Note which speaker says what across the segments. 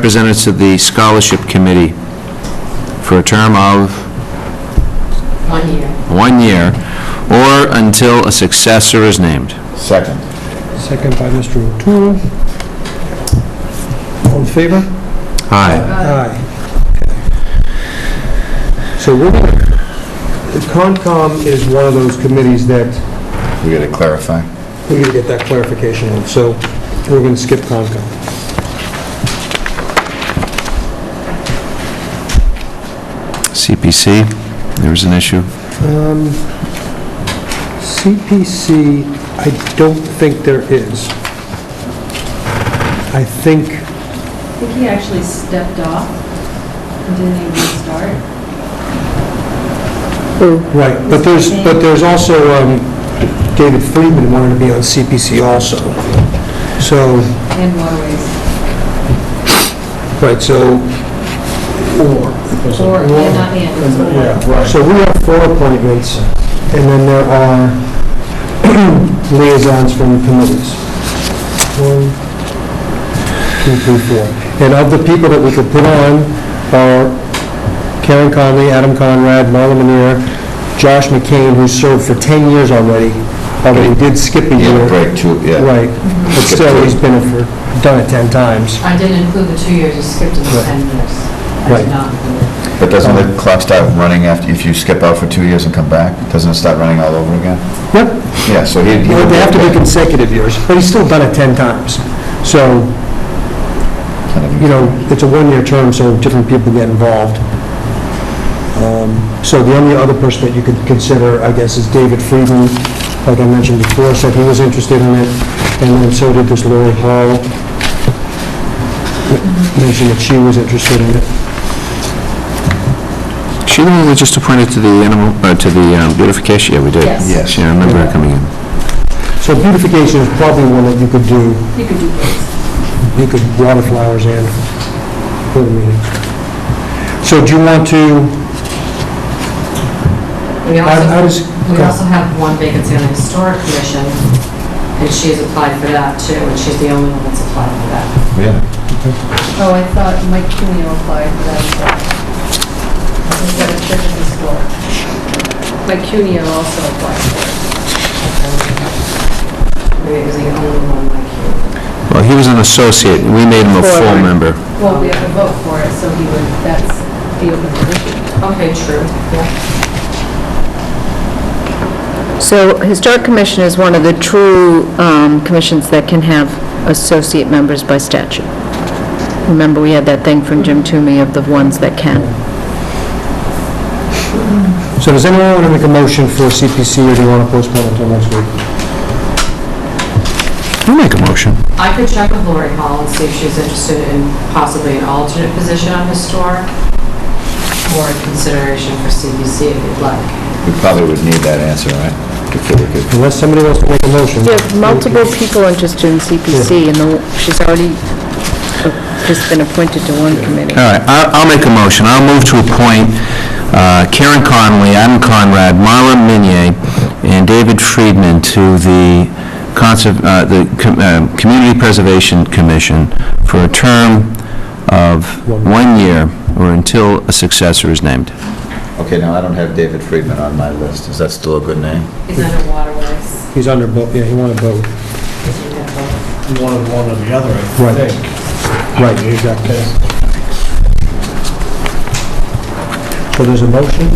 Speaker 1: representative to the Scholarship Committee for a term of
Speaker 2: One year.
Speaker 1: one year, or until a successor is named.
Speaker 3: Second.
Speaker 4: Second by Mr. O'Toole. All in favor?
Speaker 1: Aye.
Speaker 4: Aye. Okay. So we're going to, Concom is one of those committees that
Speaker 3: We gotta clarify.
Speaker 4: we need to get that clarification on, so we're going to skip Concom.
Speaker 1: CPC, there was an issue.
Speaker 4: Um, CPC, I don't think there is. I think,
Speaker 2: I think he actually stepped off and didn't even start.
Speaker 4: right, but there's, but there's also, um, David Friedman wanted to be on CPC also. So,
Speaker 2: And waterways.
Speaker 4: Right, so... Four.
Speaker 2: Or, yeah, not and, it's or.
Speaker 4: So we have four appointments, and then there are liaisons from the committees. One, two, three, four. And of the people that we could put on are Karen Conley, Adam Conrad, Marla Manera, Josh McCain, who served for 10 years already, although he did skip a
Speaker 3: Yeah,
Speaker 4: year.
Speaker 3: break two, yeah.
Speaker 4: Right, but still, he's been, it for done it 10 times.
Speaker 2: I didn't include the two years, I skipped the 10 years. I
Speaker 4: Right.
Speaker 2: did not include it.
Speaker 3: But doesn't the clock start running after, if you skip out for two years and come back? Doesn't it start running all over again?
Speaker 4: Yep.
Speaker 3: Yeah, so he...
Speaker 4: Well, They have to be consecutive years, but he's still done it 10 times. So, you know, it's a one-year term, so different people get involved. Um, So the only other person that you could consider, I guess, is David Friedman, like I mentioned before, said he was interested in it, and then so did this Lori Hall, mentioned that she was interested in it.
Speaker 1: She the one we just appointed to the animal, uh, to the um, beautification? Yeah, we did.
Speaker 2: Yes.
Speaker 3: Yes.
Speaker 1: Yeah, I remember her coming in.
Speaker 4: So beautification is probably one that you could do,
Speaker 2: You could do both.
Speaker 4: you could water flowers and go to meetings. So do you want to...
Speaker 2: We
Speaker 4: How how
Speaker 2: also,
Speaker 4: does,
Speaker 2: we also have one vacancy on the historic commission, and she's applied for that too, and she's the only one that's applied for that.
Speaker 3: Yeah,
Speaker 2: Oh, I thought Mike Cuneo applied for that as well. He's got a church in his store. Mike Cuneo also applied for it. Maybe it was the only one Mike Cuneo.
Speaker 1: Well, he was an associate, we made him a full
Speaker 4: Forward.
Speaker 1: member.
Speaker 2: Well, we have to vote for it, so he would, that's the open position. Okay, true, yeah.
Speaker 5: So Historic Commission is one of the true um, commissions that can have associate members by statute. Remember, we had that thing from Jim Toomey of the ones that can.
Speaker 4: so does anyone want to make a motion for CPC, or do you want to postpone until next week?
Speaker 1: I'll make a motion.
Speaker 2: I could check with Lori Hall and see if she's interested in possibly an alternate position on his store or consideration for CBC if you'd like.
Speaker 3: we probably would need that answer, right? Before we could-
Speaker 4: Unless somebody wants to make a motion.
Speaker 5: There's multiple people interested in CPC, and the- she's already uh, just been appointed to one committee.
Speaker 1: All right, I- I'll make a motion. I'll move to appoint uh, Karen Conley, Adam Conrad, Marla Minier, and David Friedman to the Conserv- uh, the Com- uh, Community Preservation Commission for a term of one year or until a successor is named.
Speaker 3: Okay, now I don't have David Friedman on my list. Is that still a good name?
Speaker 2: He's under waterways.
Speaker 4: He's under both, yeah, he wanted both.
Speaker 6: one of one or the other, I
Speaker 4: Right.
Speaker 6: think.
Speaker 4: Right, exactly. So there's a motion?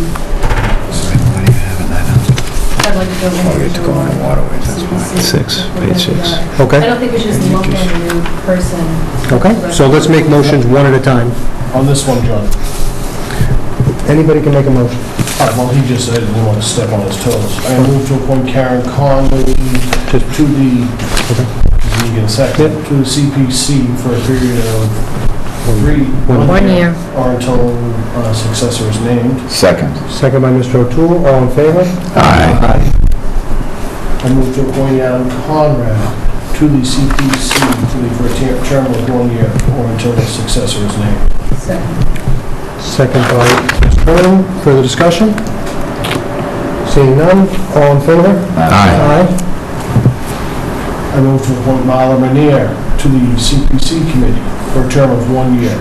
Speaker 2: I'd like to go into.
Speaker 3: get Oh, to go on the waterways, that's why.
Speaker 2: CBC.
Speaker 1: Six, page six.
Speaker 2: I
Speaker 4: Okay,
Speaker 2: don't think we should just look at a new person.
Speaker 4: okay. So let's make motions one at a time.
Speaker 6: On this one, John,
Speaker 4: Anybody can make a motion.
Speaker 6: all right, well, he just said he didn't want to step on his toes. I move to appoint Karen Conley to the, you get a second, to the CPC for a period of three.
Speaker 4: One
Speaker 5: One year.
Speaker 6: Or until uh, successor is named.
Speaker 3: Second.
Speaker 4: Second by Mr. O'Toole, all in favor?
Speaker 1: Aye.
Speaker 6: I move to appoint Adam Conrad to the CPC to the, for a ter- term of one year or until a successor is named.
Speaker 2: Second.
Speaker 4: Second by Mr. Herman, further discussion? Seeing none, all in favor?
Speaker 1: Aye.
Speaker 4: Aye.
Speaker 6: I move to appoint Marla Manier to
Speaker 4: to the CPC committee for a term of one year.